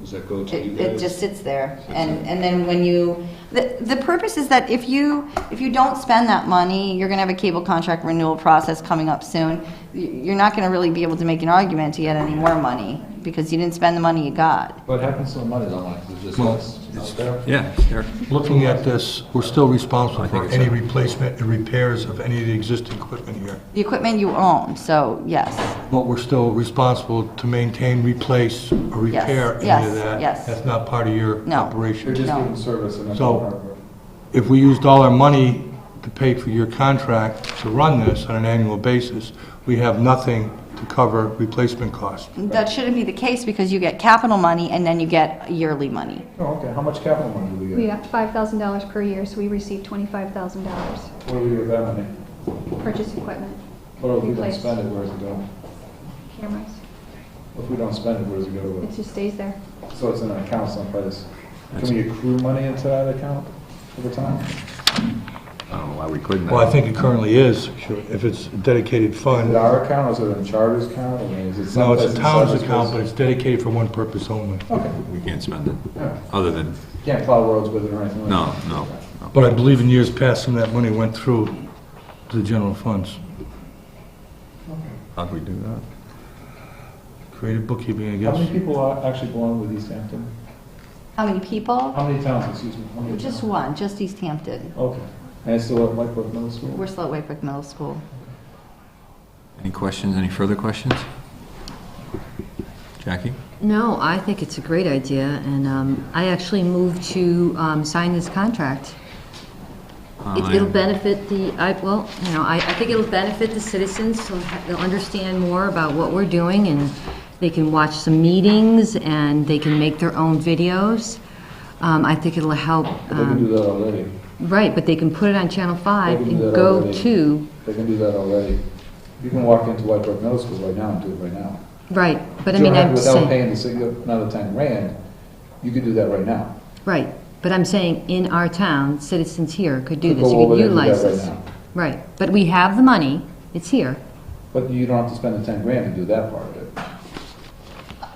Does that go to you It, it guys? just sits there. Sits And, there. and then when you, the, the purpose is that if you, if you don't spend that money, you're gonna have a cable contract renewal process coming up soon. You- You're not gonna really be able to make an argument to get any more money, because you didn't spend the money you got. What happens to the money, though, like, is this Well, out there? Yeah, there- Looking at this, we're still responsible think for it's any a- replacement and repairs of any of the existing equipment here. The equipment you own, so yes, But we're still responsible to maintain, replace, or Yes, repair any yes, of that. yes. That's not part of your No. They're operation. just No. doing service and that's So- all hardware. If we used all our money to pay for your contract to run this on an annual basis, we have nothing to cover replacement costs. that shouldn't be the case, because you get capital money and then you get yearly money. Oh, okay, how much capital money do we We get? got five thousand dollars per year, so we received twenty-five thousand dollars, What do we do with that money? purchase equipment, What if we don't Replace. spend it, where does it go? cameras, If we don't spend it, where does it go it to? just stays there. So it's in an account someplace. Can we accrue money into that account over time? I don't know why we couldn't. Well, I think it currently is, if it's a dedicated Is it fund. our account, or is it in charter's account, I mean, is it No, someplace? it's a in town's someplace- account, but it's dedicated for one purpose only. Okay, uh, We can't spend it, yeah, other than, can't plow roads with it or anything like that? no, no, no. But I believe in years past, some of that money went through to the general funds. How'd we do that? Creative bookkeeping, I How many guess. people are- actually belong with East Hampton? How many people? How many towns, excuse me? how many Just towns? one, just East Hampton. Okay, and it's still at Whitebrook Middle School? We're still at Wakewick Middle School. Any questions, any further questions? Jackie? No, I think it's a great idea, and um, I actually moved to um, sign this contract. Oh, It- Uh, It'll benefit the, I, well, you know, I, I think it'll benefit the citizens, so they'll understand more about what we're doing, and they can watch some meetings, and they can make their own videos. Um, I think it'll help, They can do um, that already. right, but they can put it on Channel 5 They can do and that go already. to, They can do that already. You can walk into Whitebrook Middle School right now and do it right now. right, but I mean, I'm Without saying, paying the sig- another ten rand, you could do that right now. right, but I'm saying, in our town, citizens here could do Could this, go you over could there and do that utilize right this. now. Right, but we have the money, it's here. But you don't have to spend the ten grand to do that part of it.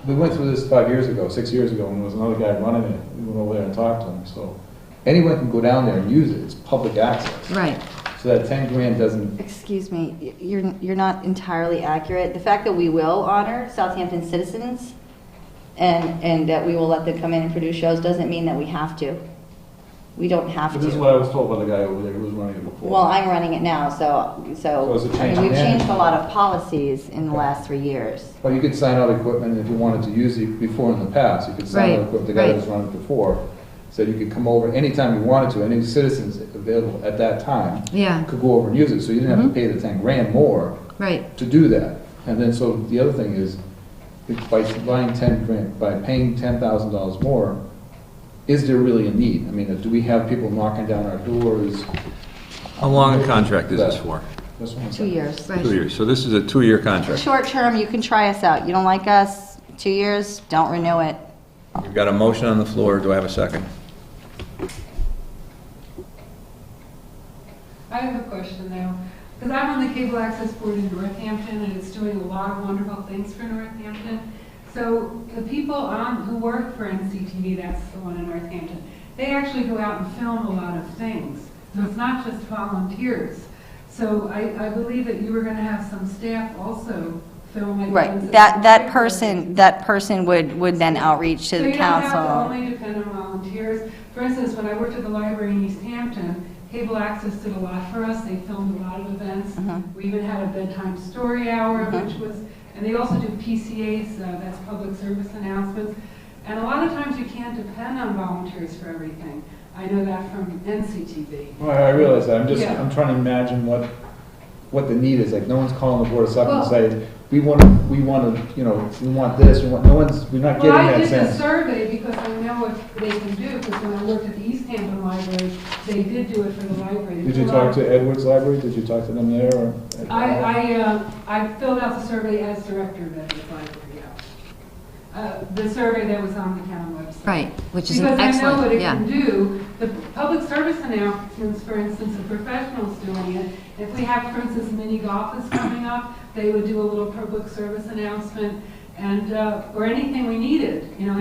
We went through this five years ago, six years ago, when there was another guy running it. We went over there and talked to him, so. Anyone can go down there and use it. It's public access. Right. So that ten grand doesn't, Excuse me, y- you're, you're not entirely accurate. The fact that we will honor Southampton citizens and, and that we will let them come in and produce shows doesn't mean that we have to. We don't have but this is to. what I was told by the guy over there who was running it before. Well, I'm running it now, so, So so, is it I mean, changed we've then? changed a lot of policies in the last three years. Well, you could sign out equipment if you wanted to use it before in the past, you could sign out Right, equipment, the guy that right. was running before, said you could come over anytime you wanted to, any citizens available at that time Yeah, could go over and use it, so you didn't have to pay the ten grand more right, to do that. And then, so the other thing is, if by buying ten grand, by paying ten thousand dollars more, is there really a need? I mean, do we have people knocking down our doors? How long a contract is this for? That's what I'm Two saying. years. Two right. years, so this is a two-year contract. Short term, you can try us out. You don't like us, two years, don't renew it. We've got a motion on the floor, do I have a second? I have a question now, because I'm on the Cable Access Board in Northampton, and it's doing a lot of wonderful things for Northampton. So the people on, who work for NCTV, that's the one in Northampton, they actually go out and film a lot of things. So it's not just volunteers. So I, I believe that you were going to have some staff also film like. Right, that, that person, that person would, would then outreach to the council. So you don't have to only depend on volunteers. For instance, when I worked at the library in East Hampton, Cable Access did a lot for us. They filmed a lot of events. Uh-huh. We even had a bedtime story hour, which was, and they also do PCAs, uh, that's public service announcements. And a lot of times you can't depend on volunteers for everything. I know that from NCTV. Well, I realize that, I'm just, Yeah. I'm trying to imagine what, what the need is, like, no one's calling the board of selectmen and Well- saying, we want, we want to, you know, we want this, we want, no one's, we're not getting Well, I that did the sense. survey because I know what they can do, because when I worked at the East Hampton Library, they did do it for the library. Did you talk to Edwards Library, did you talk to them there, or? I, I, uh, I filled out the survey as director of Edwards Library, yeah. Uh, The survey that was on the town website. Right, which is an Because I know what excellent, it yeah. can do. The public service announcements, for instance, of professionals doing it, if we have, for instance, mini golf is coming up, they would do a little public service announcement and, uh, or anything we needed, you know,